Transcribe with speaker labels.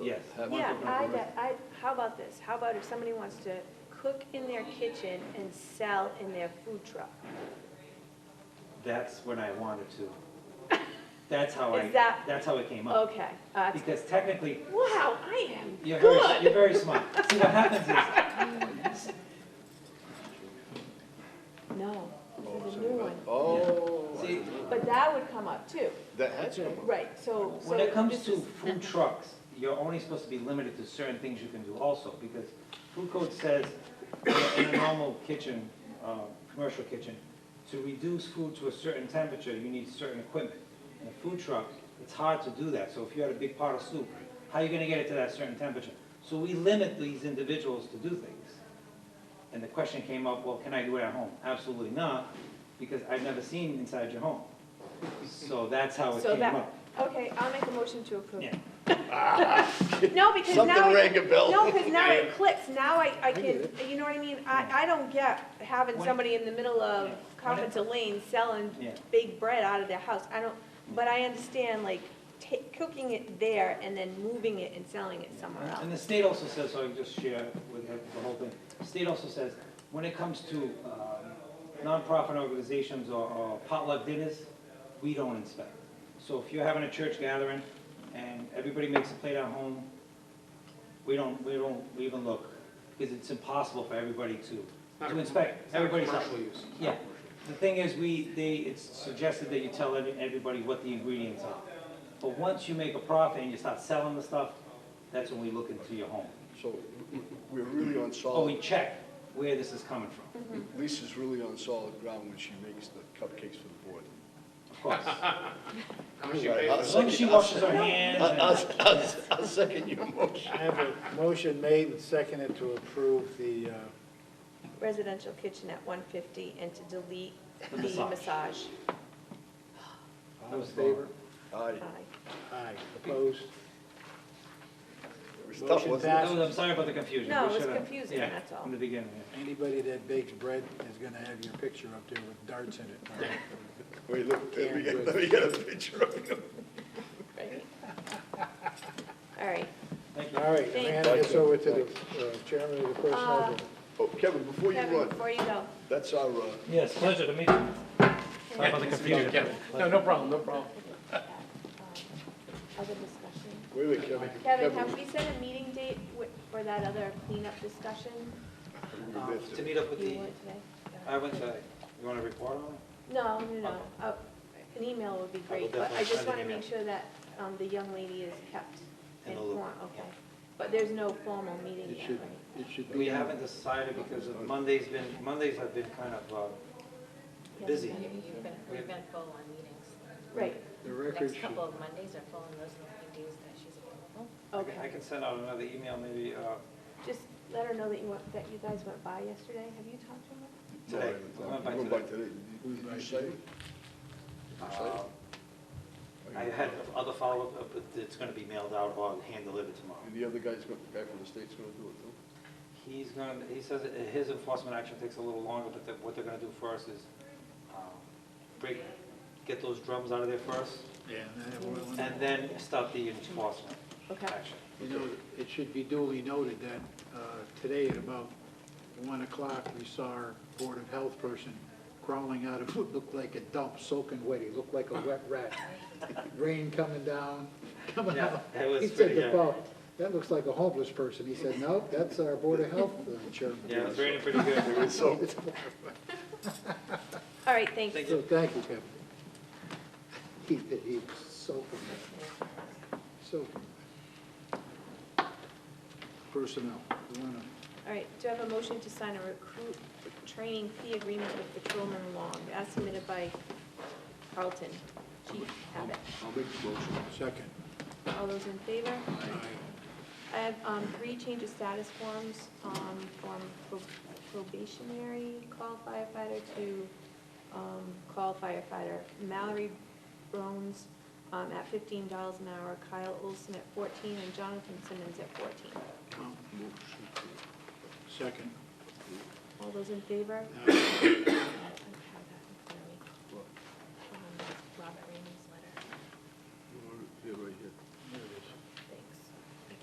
Speaker 1: Yes.
Speaker 2: That might
Speaker 3: Yeah,
Speaker 2: be-
Speaker 3: I, de- I, how about this? How about if somebody wants to cook in their kitchen and sell in their food truck?
Speaker 1: That's when I wanted to. That's how I,
Speaker 3: Is that-
Speaker 1: that's how it came up.
Speaker 3: Okay, uh,
Speaker 1: Because technically,
Speaker 3: wow, I am
Speaker 1: you're very, you're
Speaker 3: good.
Speaker 1: very smart. See, what happens
Speaker 3: No, this is a new one.
Speaker 4: Oh.
Speaker 1: is, see,
Speaker 3: But that would come up too,
Speaker 4: That has come up.
Speaker 3: right, so, so.
Speaker 1: when it comes
Speaker 3: this
Speaker 1: to
Speaker 3: is-
Speaker 1: food trucks, you're only supposed to be limited to certain things you can do also, because food code says in a normal kitchen, uh, commercial kitchen, to reduce food to a certain temperature, you need certain equipment. In a food truck, it's hard to do that, so if you had a big pot of soup, how are you gonna get it to that certain temperature? So we limit these individuals to do things. And the question came up, well, can I do it at home? Absolutely not, because I've never seen inside your home. So that's how it
Speaker 3: So
Speaker 1: came
Speaker 3: that-
Speaker 1: up.
Speaker 3: Okay, I'll make a motion to approve.
Speaker 1: Yeah.
Speaker 3: No, because now.
Speaker 4: Something
Speaker 3: it-
Speaker 4: rang a bell.
Speaker 3: No, because now it
Speaker 4: Yeah.
Speaker 3: clicks, now I, I can,
Speaker 4: get
Speaker 3: you know what I mean? I, I don't get having
Speaker 1: When-
Speaker 3: somebody in the middle of
Speaker 1: Yeah.
Speaker 3: Conference Lane selling
Speaker 1: Yeah. Mm.
Speaker 3: big bread out of their house. I don't, but I understand like ta- cooking it there and then moving it and selling it somewhere
Speaker 1: And
Speaker 3: else.
Speaker 1: the state also says, so I can just share with the the whole thing, the state also says, when it comes to um, nonprofit organizations or- or potluck dinners, we don't inspect. So if you're having a church gathering and everybody makes a plate at home, we don't, we don't even look, because it's impossible for everybody to, to inspect. Everybody's up.
Speaker 5: Commercial use.
Speaker 1: Yeah, the thing is, we, they, it's suggested that you tell every- everybody what the ingredients are. But once you make a profit and you start selling the stuff, that's when we look into your home.
Speaker 4: So we- we're really on
Speaker 1: Or we
Speaker 4: solid,
Speaker 1: check where this is coming from,
Speaker 4: Lisa's really on solid ground when she makes the cupcakes for the board.
Speaker 1: of course.
Speaker 5: How much you pay for
Speaker 1: As
Speaker 5: it?
Speaker 1: long as she washes her hands
Speaker 4: I'll,
Speaker 1: and,
Speaker 4: I'll- I'll, I'll second your motion.
Speaker 6: I have a motion made and seconded to approve the, uh,
Speaker 3: Residential kitchen at one fifty and to delete
Speaker 1: The
Speaker 3: the
Speaker 1: massage.
Speaker 3: massage.
Speaker 6: all in favor?
Speaker 4: Aye.
Speaker 3: Aye.
Speaker 6: Aye, opposed?
Speaker 4: It was tough,
Speaker 6: Motion
Speaker 4: wasn't it?
Speaker 1: That was- I'm sorry about the confusion.
Speaker 3: No,
Speaker 1: We
Speaker 3: it was
Speaker 1: should've-
Speaker 3: confusing,
Speaker 1: yeah,
Speaker 3: that's all.
Speaker 1: From the beginning, yeah.
Speaker 6: Anybody that bakes bread is gonna have your picture up there with darts in it.
Speaker 4: Wait, look, let me get, let me get a picture of you.
Speaker 3: Right. All right,
Speaker 1: thank you.
Speaker 6: All right,
Speaker 3: Thank
Speaker 6: Amanda gets over to the uh, chairman of the personnel board.
Speaker 4: Oh, Kevin, before you
Speaker 3: Kevin,
Speaker 4: run,
Speaker 3: before you go,
Speaker 4: that's our, uh,
Speaker 1: Yes, pleasure to meet you. Sorry about the confusion.
Speaker 5: Yeah, No, no problem, no problem.
Speaker 3: other discussion.
Speaker 4: wait, wait, Kevin.
Speaker 3: Kevin, have we set a meeting date wi- for that other cleanup discussion
Speaker 4: we missed
Speaker 1: To
Speaker 4: it.
Speaker 1: meet up with
Speaker 3: you
Speaker 1: the, Uh,
Speaker 3: want today?
Speaker 1: I went to, you want to report on it?
Speaker 3: No, no, no, Uh, an email would be great, but I
Speaker 1: oh. definitely
Speaker 3: just
Speaker 1: send
Speaker 3: want
Speaker 1: an
Speaker 3: to make
Speaker 1: email.
Speaker 3: sure that um, the young lady is kept
Speaker 1: In the loop,
Speaker 3: informed,
Speaker 1: yeah.
Speaker 3: okay? But there's no formal meeting
Speaker 4: It
Speaker 3: yet,
Speaker 4: should,
Speaker 3: right?
Speaker 4: it should be.
Speaker 1: We haven't decided because of Monday's been, Mondays have been kind of uh, busy.
Speaker 7: You've been, we've been full on meetings.
Speaker 3: Right,
Speaker 6: The record
Speaker 7: Next
Speaker 6: should,
Speaker 7: couple of Mondays are full, and those are the days that she's available.
Speaker 1: I can- I
Speaker 3: okay.
Speaker 1: can send out another email maybe uh,
Speaker 3: Just let her know that you went, that you guys went by yesterday. Have you talked to
Speaker 4: No,
Speaker 3: her?
Speaker 4: I
Speaker 1: today.
Speaker 4: haven't.
Speaker 1: I went by
Speaker 4: You went
Speaker 1: today.
Speaker 4: today. Did you- did you sign it?
Speaker 1: Uh, I had other follow-up, uh, but it's going to be mailed out or hand-delivered tomorrow.
Speaker 4: And the other guy's, go- guy from the state's gonna do it, too?
Speaker 1: He's going, to he says that his enforcement action takes a little longer, but that what they're going to do first is um, break, get those drums out of there first,
Speaker 6: yeah, and then we'll-
Speaker 1: and then start the enforcement
Speaker 3: Okay,
Speaker 1: action.
Speaker 6: You know, it should be duly noted that uh, today at about 1 o'clock, we saw our Board of Health person crawling out of what looked like a dump, soaking wet. He looked like a wet rat. Rain coming down, coming
Speaker 1: Yeah,
Speaker 6: out.
Speaker 1: it was
Speaker 6: He said
Speaker 1: pretty,
Speaker 6: to
Speaker 1: yeah.
Speaker 6: Paul, that looks like a homeless person. He said, no, that's our Board of Health uh, chairman.
Speaker 1: Yeah, it's raining pretty good.
Speaker 4: So,
Speaker 3: all right, thanks.
Speaker 1: Thank
Speaker 6: So thank you, Kevin. He, he was soaking wet, soaking wet. Personnel, we want to
Speaker 3: All right, do I have a motion to sign a recruit training fee agreement with Patrolman Long as submitted by Carlton? Chief Abbott.
Speaker 4: I'll make the motion.
Speaker 6: Second.
Speaker 3: All those in favor? I have um, three change of status forms, um, from pro- probationary call firefighter to um, call firefighter. Mallory Brones um, at fifteen dollars an hour, Kyle Olson at fourteen, and Jonathan Simmons at fourteen.
Speaker 6: Second.
Speaker 3: All those in favor?
Speaker 6: Aye.
Speaker 7: I don't have that in front of me. Um, Robert Raymond's letter.
Speaker 4: Yeah, right here.